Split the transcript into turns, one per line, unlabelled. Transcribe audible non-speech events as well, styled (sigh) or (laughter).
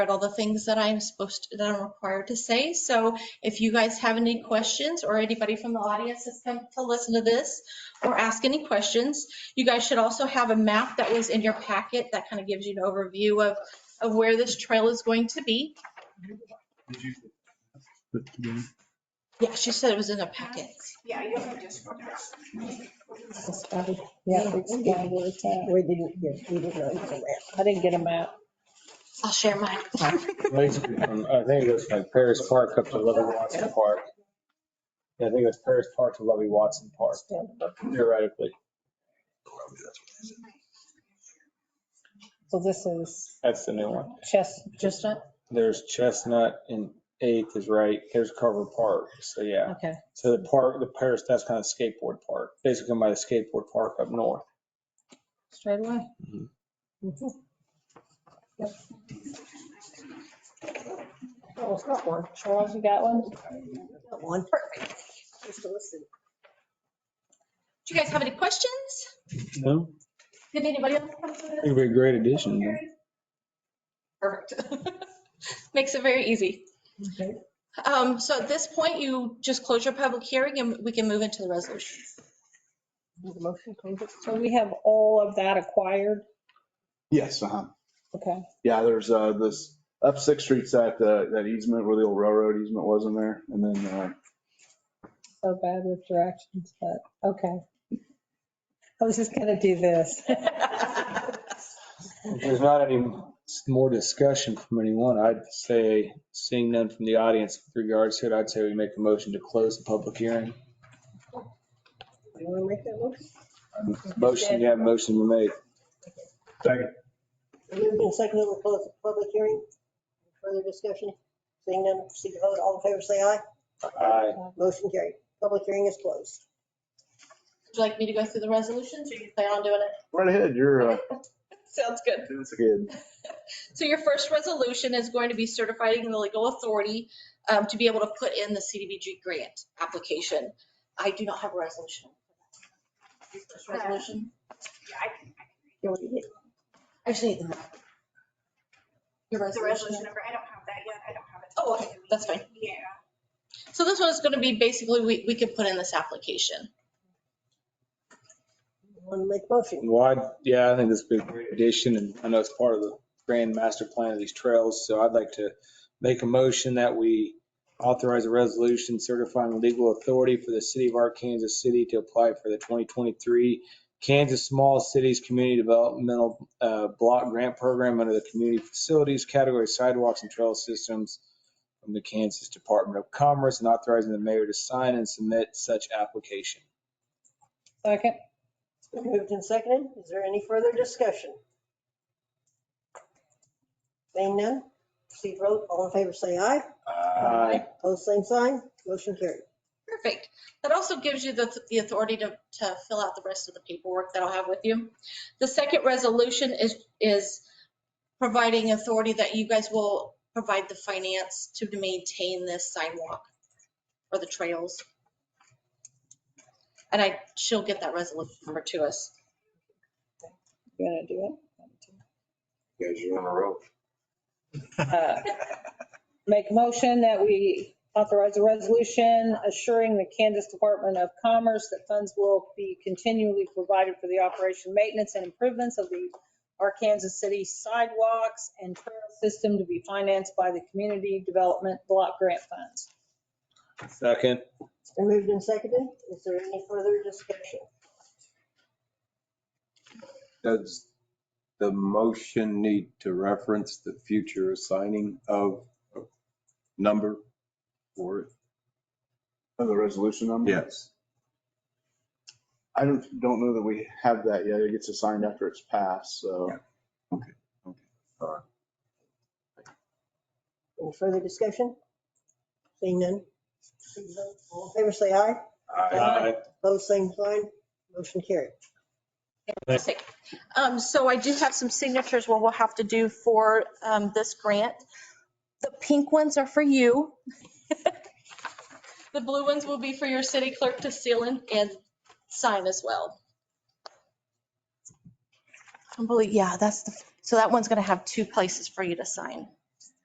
read all the things that I'm supposed, to- that I'm required to say. So if you guys have any questions or anybody from the audience that's come to listen to this or ask any questions, you guys should also have a map that was in your packet that kind of gives you an overview of, of where this trail is going to be.
Did you put together?
Yeah, she said it was in a packet.
Yeah, you have to just.
Yeah, we didn't get really tight. We didn't get, we didn't really get that. I didn't get them out.
I'll share mine.
Right, um, I think it goes from Paris Park up to Lovey Watson Park. Yeah, I think it was Paris Park to Lovey Watson Park theoretically.
So this is
That's the new one.
Chest, Chestnut?
There's Chestnut and Eighth is right. There's Carver Park. So yeah.
Okay.
So the park, the Paris, that's kind of skateboard park, basically by the skateboard park up north.
Straight away.
Mhm.
Mhm. Yep. Oh, it's got one. Charles, you got one? Got one. Perfect. Just listen.
Do you guys have any questions?
No,
Did anybody else come to this?
it'd be a great addition.
Perfect. Makes it very easy.
Okay.
Um, So at this point, you just close your public hearing and we can move into the resolution.
So we have all of that acquired?
Yes, uh-huh.
Okay.
Yeah, there's, uh, this, up Sixth Street's that, uh, that easement where the old railroad easement was in there. And then, uh,
So bad with directions, but, okay. I was just gonna do this. (laughs)
If there's not any more discussion from anyone, I'd say, seeing none from the audience with regards to it, I'd say we make a motion to close the public hearing.
You wanna make that motion?
Motion, yeah, motion to make.
Moved and seconded, we'll close the public hearing. Further discussion? Seeing none, proceed to vote. All in favor, say aye.
Aye.
Motion carried. Public hearing is closed.
Would you like me to go through the resolutions or you plan on doing it?
right ahead, you're, uh,
Sounds good.
it's good.
So your first resolution is going to be certifying the legal authority um, to be able to put in the CDBG grant application. I do not have a resolution. Your first Resolution, I just need the. map. Your
The
resolution.
resolution number, I don't have that yet, I don't have it.
Oh, okay, that's fine.
Yeah.
So this one is going to be basically, we, we can put in this application.
Want to make a motion?
Well, I'd- yeah, I think this would be a great addition, and I know it's part of the grand master plan of these trails, so I'd like to make a motion that we authorize a resolution certifying legal authority for the city of Arkansas City to apply for the 2023 Kansas Small Cities Community Developmental uh, Block Grant Program under the Community Facilities Category Sidewalks and Trail Systems from the Kansas Department of Commerce, and authorizing the mayor to sign and submit such application.
Second.
Moved and seconded. Is there any further discussion? Seeing none, proceed to vote. All in favor, say aye.
Uh,
Aye.
Pose same sign. Motion carried.
Perfect. That also gives you the, the authority to, to fill out the rest of the paperwork that I'll have with you. The second resolution is, is providing authority that you guys will provide the finance to maintain this sidewalk or the trails. And I, she'll get that resolution number to us.
You gonna do
Guys, you're on a roll.
it? Uh, Make a motion that we authorize a resolution assuring the Kansas Department of Commerce that funds will be continually provided for the operation, maintenance, and improvements of the Arkansas City sidewalks and trail system to be financed by the Community Development Block Grant Funds.
Second.
It's been moved and seconded. Is there any further discussion?
Does the motion need to reference the future assigning of number for it?
The resolution number?
Yes.
I don't, don't know that we have that yet. It gets assigned after it's passed, so.
Yeah.
Any further discussion? Seeing none, proceed to vote. All in favor, say aye. Aye. Pose same sign. Motion carried.
Fantastic. Um, so I do have some signatures what we'll have to do for, um, this grant. The pink ones are for you. (laughs) The blue ones will be for your city clerk to seal in and sign as well. I believe, yeah, that's the, so that one's gonna have two places for you to sign.